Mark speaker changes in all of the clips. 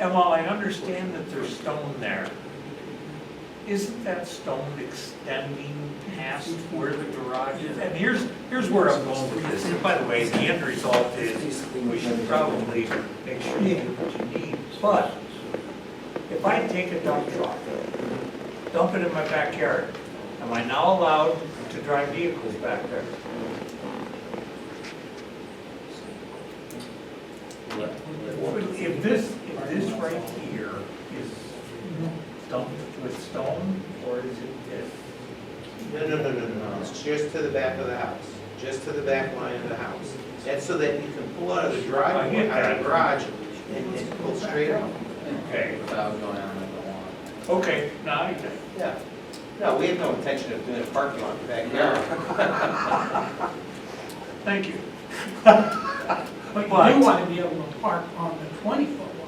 Speaker 1: and while I understand that there's stone there, isn't that stone extending past where the garage is? And here's, here's where I'm going with this, and by the way, the end result is, we should probably make sure you do what you need, but if I take a dump truck, dump it in my backyard, am I now allowed to drive vehicles back there? If this, if this right here is dumped with stone, or is it this?
Speaker 2: No, no, no, no, no, no. it's just to the back of the house, just to the back line of the house. That's so that you can pull out of the driveway, out of the garage, and and pull straight out.
Speaker 1: Okay,
Speaker 3: without going on like the lawn.
Speaker 1: okay, now I get it.
Speaker 2: Yeah. No, we have no intention of doing a parking lot in the backyard.
Speaker 1: Thank you.
Speaker 4: But you
Speaker 1: But-
Speaker 4: do want to be able to park on the twenty-foot one.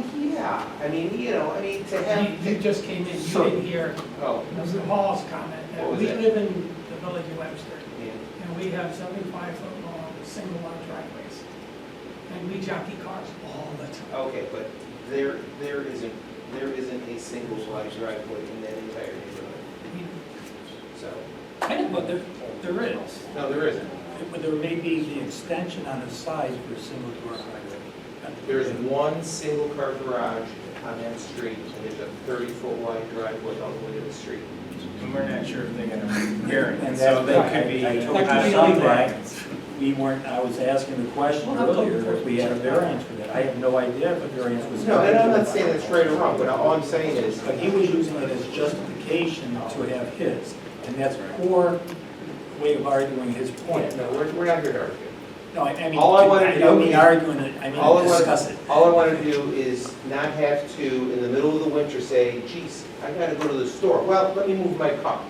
Speaker 2: Well, yeah, I mean, you know, I mean, to
Speaker 4: You you
Speaker 2: have,
Speaker 4: just came in, you
Speaker 2: So-
Speaker 4: didn't hear
Speaker 2: oh,
Speaker 4: Mr. Hall's comment. that
Speaker 2: What was
Speaker 4: We
Speaker 2: that?
Speaker 4: live in the village of Webster,
Speaker 2: yeah.
Speaker 4: and we have seventy-five foot long, single lot driveways. And we jockey cars all the time.
Speaker 2: Okay, but there, there isn't, there isn't a single wide driveway in that entire neighborhood,
Speaker 4: I mean,
Speaker 2: so,
Speaker 5: I know, but there, there is.
Speaker 2: no, there isn't.
Speaker 5: But there may be the extension on the side for a single door
Speaker 2: There's one single car garage on that street, and there's a thirty-foot wide driveway all the way to the street.
Speaker 6: And we're not sure if they're gonna hear it,
Speaker 5: And
Speaker 6: so
Speaker 5: that's
Speaker 6: they
Speaker 5: right.
Speaker 6: could be.
Speaker 5: I- I told
Speaker 6: out
Speaker 5: you
Speaker 6: of
Speaker 5: something.
Speaker 6: compliance.
Speaker 5: We weren't, I was asking the question
Speaker 4: Well, I'll go
Speaker 5: earlier if we had a variance for that. I have no idea if a variance was.
Speaker 2: No, and I'm not saying that's right or wrong, but all I'm saying is,
Speaker 5: But he was using it as justification to have his, and that's poor way of arguing his point.
Speaker 2: no, we're, we're not here to argue.
Speaker 5: No, I I mean,
Speaker 2: All I wanted
Speaker 5: I
Speaker 2: to
Speaker 5: don't
Speaker 2: do
Speaker 5: mean
Speaker 2: is-
Speaker 5: arguing it, I
Speaker 2: All I
Speaker 5: mean
Speaker 2: wanna-
Speaker 5: discuss it.
Speaker 2: All I want to do is not have to, in the middle of the winter, say, geez, I gotta go to the store, well, let me move my car.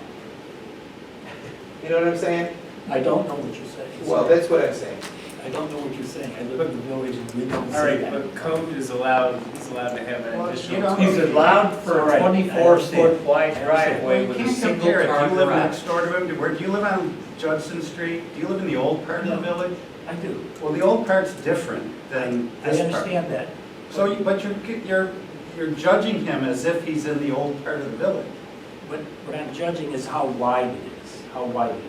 Speaker 2: You know what I'm saying?
Speaker 5: I don't know what you're saying.
Speaker 2: Well, that's what I'm saying.
Speaker 5: I don't know what you're saying. I live in the village and we don't
Speaker 6: All
Speaker 5: say
Speaker 6: right,
Speaker 5: that.
Speaker 6: but code is allowed, is allowed to have an
Speaker 5: Well, you
Speaker 6: additional.
Speaker 5: know-
Speaker 1: He's allowed for a
Speaker 5: Alright.
Speaker 1: twenty-four foot wide driveway
Speaker 6: You
Speaker 1: with a
Speaker 6: can't
Speaker 1: single
Speaker 6: compare it. Do
Speaker 1: car
Speaker 6: you live
Speaker 1: garage.
Speaker 6: next door to him? Do- Where, do you live on Judson Street? Do you live in the old part of the
Speaker 5: No.
Speaker 6: village?
Speaker 5: I do.
Speaker 6: Well, the old part's different than
Speaker 5: I
Speaker 6: this part.
Speaker 5: understand that.
Speaker 6: So, you- but you're, you're, you're judging him as if he's in the old part of the village.
Speaker 5: What, what I'm judging is how wide it is, how wide it is.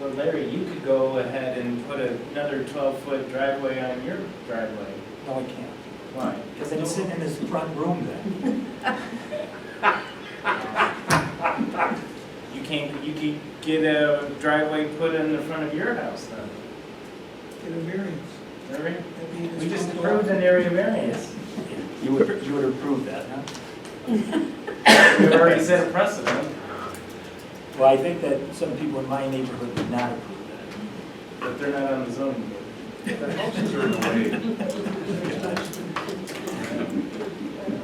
Speaker 7: Well, Larry, you could go ahead and put another 12-foot driveway on your driveway.
Speaker 5: No, I can't,
Speaker 7: Why?
Speaker 5: because I'm sitting in this front room then.
Speaker 7: You can't, you could get a driveway put in the front of your house then.
Speaker 4: Get a variance.
Speaker 7: Larry,
Speaker 4: That'd be in
Speaker 7: we
Speaker 4: this
Speaker 7: just
Speaker 4: front door.
Speaker 7: approved an area variance.
Speaker 5: You would, you would approve that, huh?
Speaker 7: We've already set a precedent.
Speaker 5: Well, I think that some people in my neighborhood would not approve that.
Speaker 7: But they're not on the zoning board.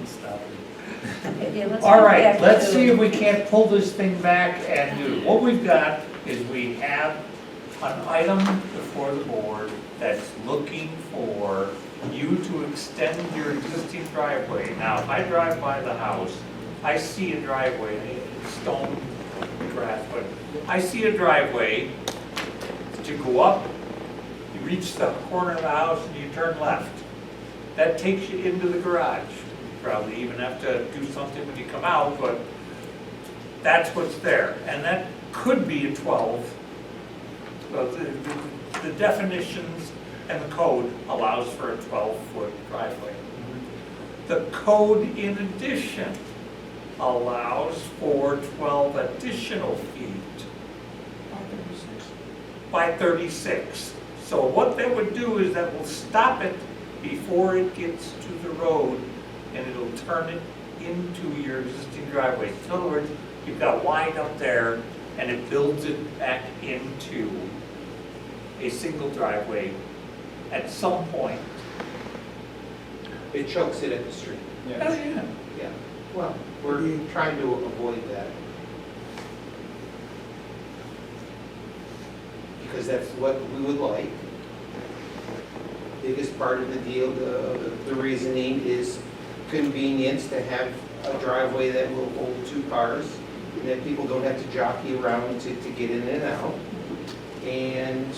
Speaker 5: Stop it.
Speaker 8: Okay, let's
Speaker 1: All
Speaker 8: go
Speaker 1: right,
Speaker 8: back
Speaker 1: let's
Speaker 8: to-
Speaker 1: see if we can't pull this thing back and do, what we've got is we have an item before the board that's looking for you to extend your existing driveway. Now, if I drive by the house, I see a driveway, it's stone grass, but I see a driveway to go up, you reach the corner of the house and you turn left. That takes you into the garage. You Probably even have to do something when you come out, but that's what's there. And that could be a 12. But the- the- The definitions and the code allows for a 12-foot driveway. The code in addition allows for 12 additional feet by 36. So what that would do is that will stop it before it gets to the road, and it'll turn it into your existing driveway. In other words, you've got wide up there, and it builds it back into a single driveway at some point.
Speaker 2: It chokes it at the street.
Speaker 4: Oh,
Speaker 7: Yeah.
Speaker 1: yeah.
Speaker 2: Yeah, well, we're trying to avoid that. Because that's what we would like. Biggest part of the deal, the, the reasoning is convenience to have a driveway that will hold two cars, and that people don't have to jockey around to, to get in and out. And